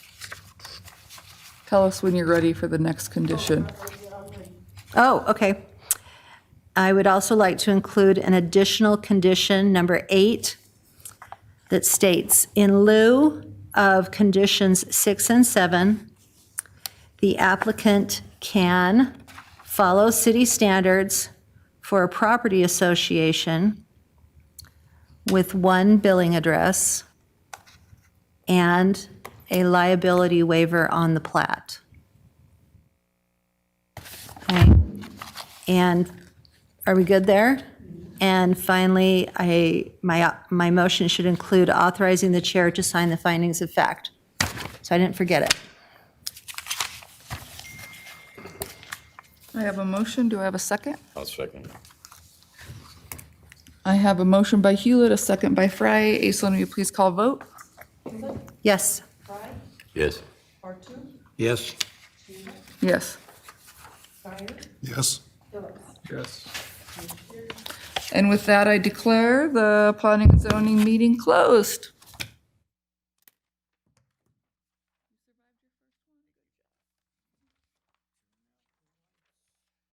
Tell us when you're ready for the next condition. Oh, okay. I would also like to include an additional condition, number eight, that states, in lieu of conditions six and seven, the applicant can follow city standards for a property association with one billing address and a liability waiver on the plat. Okay. And are we good there? And finally, I, my, my motion should include authorizing the chair to sign the findings of fact. So I didn't forget it. I have a motion. Do I have a second? I'll second. I have a motion by Hewlett, a second by Frye. Aislinn, will you please call vote? Yes, Yes. Yes. Yes. Yes. Yes. And with that, I declare the planning and zoning meeting closed.